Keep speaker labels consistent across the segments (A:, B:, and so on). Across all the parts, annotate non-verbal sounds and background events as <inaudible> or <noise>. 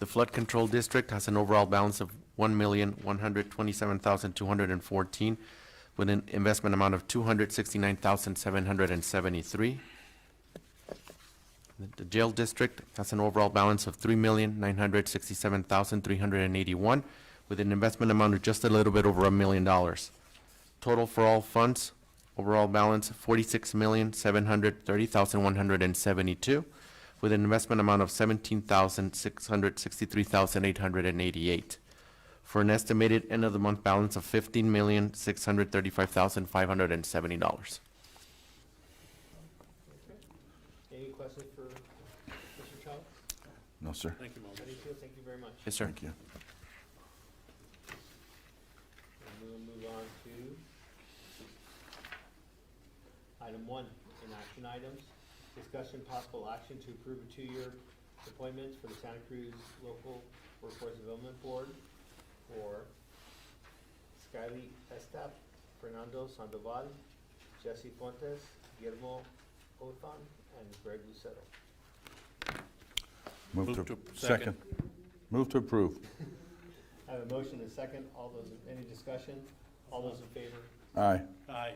A: The flood control district has an overall balance of one million, one hundred twenty-seven thousand, two hundred and fourteen, with an investment amount of two hundred sixty-nine thousand, seven hundred and seventy-three. The jail district has an overall balance of three million, nine hundred sixty-seven thousand, three hundred and eighty-one, with an investment amount of just a little bit over a million dollars. Total for all funds, overall balance forty-six million, seven hundred thirty thousand, one hundred and seventy-two, with an investment amount of seventeen thousand, six hundred sixty-three thousand, eight hundred and eighty-eight, for an estimated end-of-the-month balance of fifteen million, six hundred thirty-five thousand, five hundred and seventy dollars.
B: Any questions for Mr. Chow?
C: No, sir.
B: Thank you, Mauricio. Thank you very much.
A: Yes, sir.
C: Thank you.
B: And we'll move on to item one, in action items, discussion possible action to approve a two-year appointments for the Santa Cruz Local Workforce Development Board for Skyly Estep, Fernando Sandoval, Jesse Fuentes, Guillermo Othon, and Greg Lucero.
C: Move to, second. Move to approve.
B: I have a motion and a second. All those, any discussion? All those in favor?
C: Aye.
D: Aye,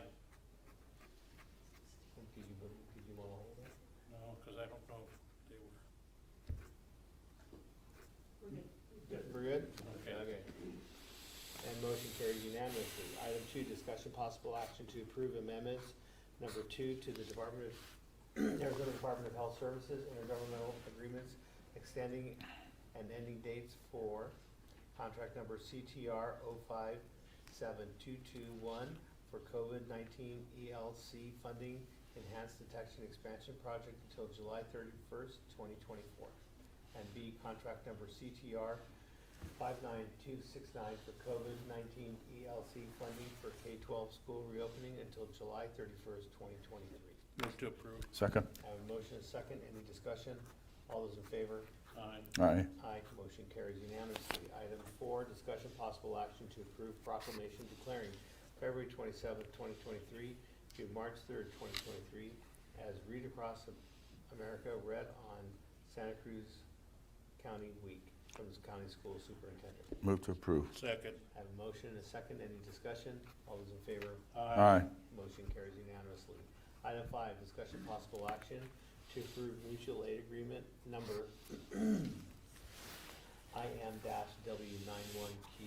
B: Did you, did you want to hold it?
D: no, because I don't know if they were.
B: Good, We're good?
D: Okay.
B: And motion carried unanimously. Item two, discussion possible action to approve amendments number two to the Department of, <clears throat> Arizona Department of Health Services intergovernmental agreements extending and ending dates for contract number CTR 057221 for COVID-19 ELC funding enhanced detection expansion project until July 31st, 2024. And B, contract number CTR 59269 for COVID-19 ELC funding for K-12 school reopening until July 31st, 2023.
D: Move to approve.
C: Second.
B: I have a motion, a second, any discussion? All those in favor?
D: Aye,
C: Aye.
B: Aye, motion carries unanimously. Item four, discussion possible action to approve proclamation declaring February twenty-seventh, twenty twenty-three to March third, twenty twenty-three as Read Across America read on Santa Cruz County Week from the county school superintendent.
C: Move to approve.
D: second.
B: I have a motion and a second, any discussion? All those in favor?
C: Aye.
B: Motion carries unanimously. Item five, discussion possible action to approve mutual aid agreement number <clears throat> IM W nine one Q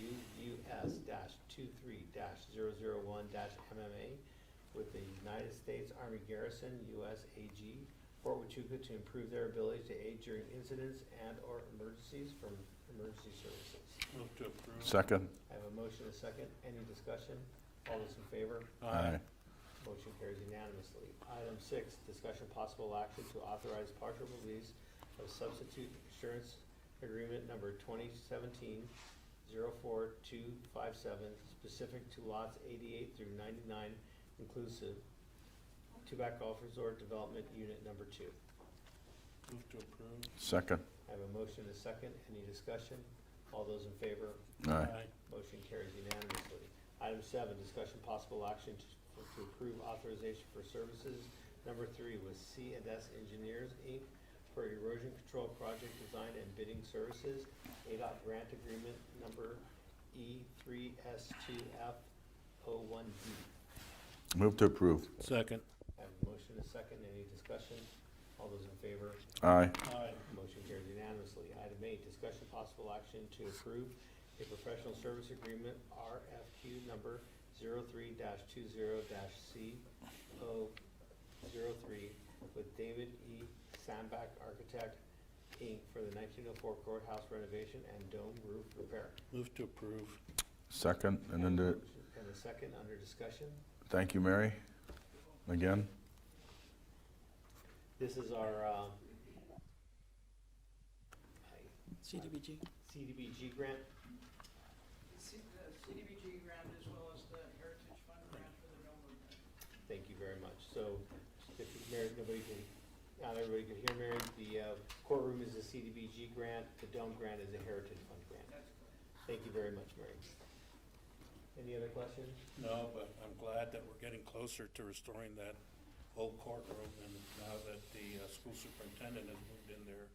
B: US two three dash MMA with the United States Army Garrison USAG Fort Huachuca to improve their ability to aid during incidents and/or emergencies from emergency services.
D: Move to approve.
C: Second.
B: I have a motion, and a second. Any discussion? All those in favor?
C: Aye.
B: Motion carries unanimously. Item six, discussion possible action to authorize partial release of substitute insurance agreement number 2017-04-257, specific to lots eighty-eight through ninety-nine inclusive, Tubac Golf Resort Development Unit Number Two.
D: Move to approve.
C: Second.
B: I have a motion, and a second. Any discussion? All those in favor?
C: Aye.
B: Motion carries unanimously. Item seven, discussion possible action to to approve authorization for services number three with C and S Engineers, Inc. for erosion control project design and bidding services, ADOT grant agreement number E three S two F O one D.
C: Move to approve.
D: Second.
B: I have a motion, and a second, any discussion? All those in favor?
C: Aye.
D: Aye,
B: Motion carries unanimously. Item eight, discussion possible action to approve a professional service agreement, RFQ number 03-20-CO03, with David E. Sandback Architect, Inc., for the 1904 courthouse renovation and dome roof repair.
D: move to approve.
C: Second. And then the,
B: And the second, under discussion.
C: thank you, Mary, again.
B: This is our um,
E: CDBG.
B: CDBG grant.
E: C- the CDBG grant as well as the Heritage Fund grant for the Millwood.
B: Thank you very much. So, if you, Mary, nobody can, not everybody can hear Mary, the uh, courtroom is a CDBG grant, the dome grant is a Heritage Fund grant. Thank you very much, Mary. Any other questions?
D: No, but I'm glad that we're getting closer to restoring that old courtroom, and now that the uh, school superintendent has moved in there,